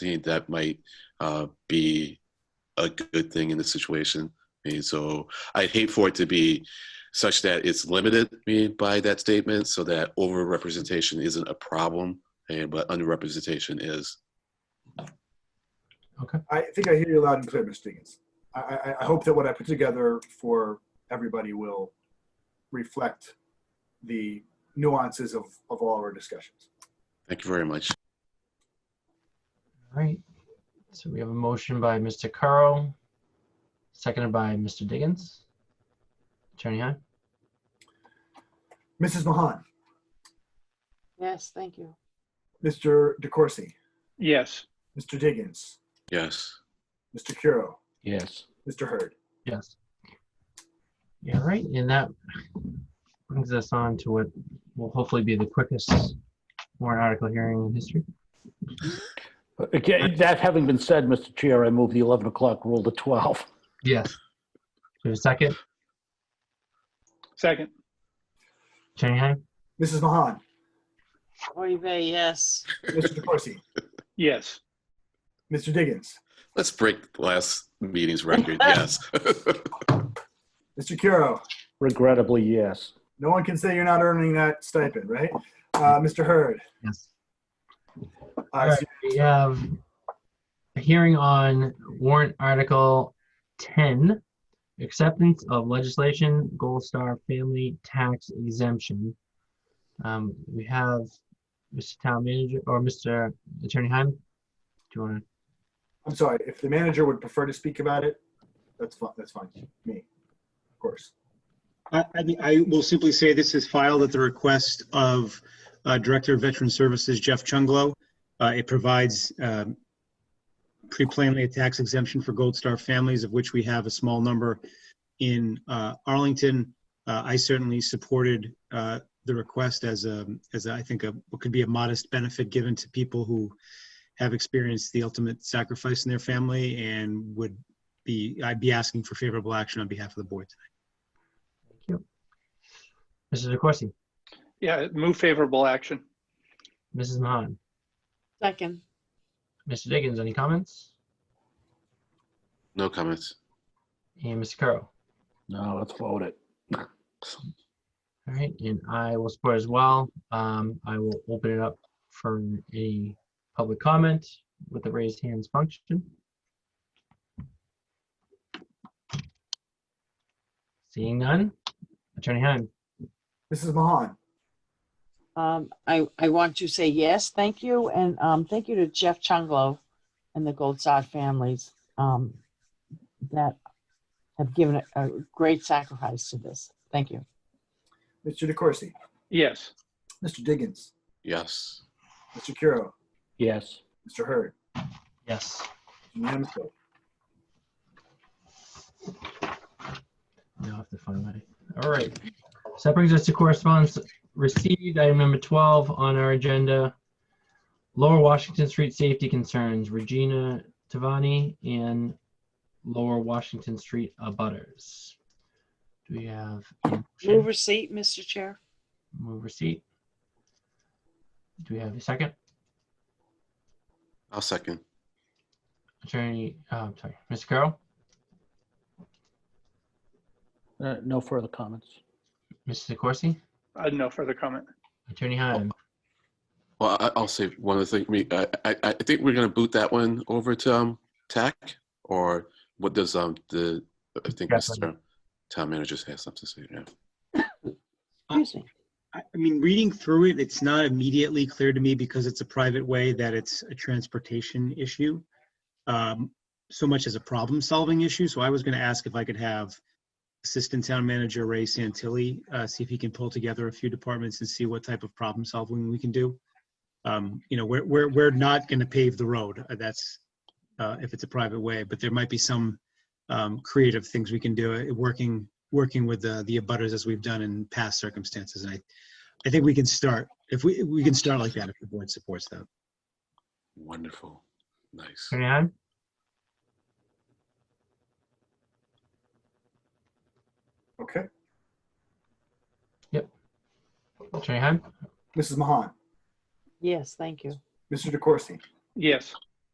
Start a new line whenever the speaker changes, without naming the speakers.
think that might uh, be a good thing in the situation. I mean, so I'd hate for it to be such that it's limited I mean, by that statement, so that overrepresentation isn't a problem, and but underrepresentation is.
I think I hear you loud and clear, Mr. Diggins. I, I, I hope that what I put together for everybody will reflect the nuances of, of all our discussions.
Thank you very much.
All right. So we have a motion by Mr. Caro, seconded by Mr. Diggins. Attorney Heim?
Mrs. Mahan,
Yes, thank you.
Mr. DeCoursey,
Yes.
Mr. Diggins,
Yes.
Mr. Curo,
Yes.
Mr. Hurd.
Yes. Yeah, all right. And that brings us on to what will hopefully be the quickest warrant article hearing in history.
Okay, that having been said, Mr. Chair, I move the 11 o'clock rule to 12.
Yes. Do we have a second?
Second.
Attorney Heim?
Mrs. Mahan,
Oive, yes.
Mr. DeCoursey,
Yes.
Mr. Diggins,
Let's break the last meeting's record. Yes.
Mr. Curo.
Regrettably, yes.
No one can say you're not earning that stipend, right? Uh, Mr. Hurd,
Yes. All
uh,
right, we have a hearing on warrant article ten, acceptance of legislation, Gold Star Family Tax Exemption. Um, we have Mr. Town Manager or Mr. Attorney Heim. Do you want to?
I'm sorry, if the manager would prefer to speak about it, that's fine, that's fine, me, of course.
I, I think I will simply say this is filed at the request of uh, Director of Veteran Services Jeff Chunglo. Uh, It provides um, pretty plainly a tax exemption for Gold Star families, of which we have a small number in uh, Arlington. Uh, I certainly supported uh, the request as a, as I think a, what could be a modest benefit given to people who have experienced the ultimate sacrifice in their family and would be, I'd be asking for favorable action on behalf of the board.
Mrs. DeCoursey,
Yeah, move favorable action.
Mrs. Mahan,
Second,
Mr. Diggins, any comments?
no comments.
And Mr. Carroll.
No, let's vote it.
All right, and I will support as well. Um, I will open it up for a public comment with the raised hands function. Seeing none, Attorney Heim,
Mrs. Mahan,
um, I, I want to say yes, thank you, and, um, thank you to Jeff Chunglo and the Gold Sod families, um, that have given a- a great sacrifice to this. Thank you.
Mr. DeCoursey,
Yes.
Mr. Diggins,
Yes.
Mr. Curo,
Yes.
Mr. Hurd,
yes.
unanimous vote.
Now I have to find my, all right. So that brings us to correspondence received, item number 12 on our agenda. Lower Washington Street safety concerns, Regina Tavani and Lower Washington Street abutters. Do we have? a motion?
Move receipt, Mr. Chair.
Move receipt. Do we have a second?
I'll second.
Attorney, uh, I'm sorry, Mr. Carroll,
Uh, No further comments.
Mrs. DeCoursey,
I have no further comment.
Attorney Heim.
Well, I, I'll say one other thing. I mean, I, I, I think we're going to boot that one over to um, TAC, or what does um the I think Mr.
Definitely.
Town Manager has something to say. Yeah.
Excuse me.
I I mean, reading through it, it's not immediately clear to me because it's a private way that it's a transportation issue, um, so much as a problem-solving issue. So I was going to ask if I could have Assistant Town Manager Ray Santilli, uh, see if he can pull together a few departments and see what type of problem-solving we can do. Um, You know, we're, we're, we're not going to pave the road. uh, That's, uh, if it's a private way, but there might be some um, creative things we can do, uh, working, working with the, the abutters as we've done in past circumstances. And I, I think we can start, if we, we can start like that if the board supports that.
Wonderful. Nice.
Attorney Heim,
Okay,
Attorney Heim,
Mrs. Mahan,
Yes, thank you.
Mr. DeCoursey,
Yes.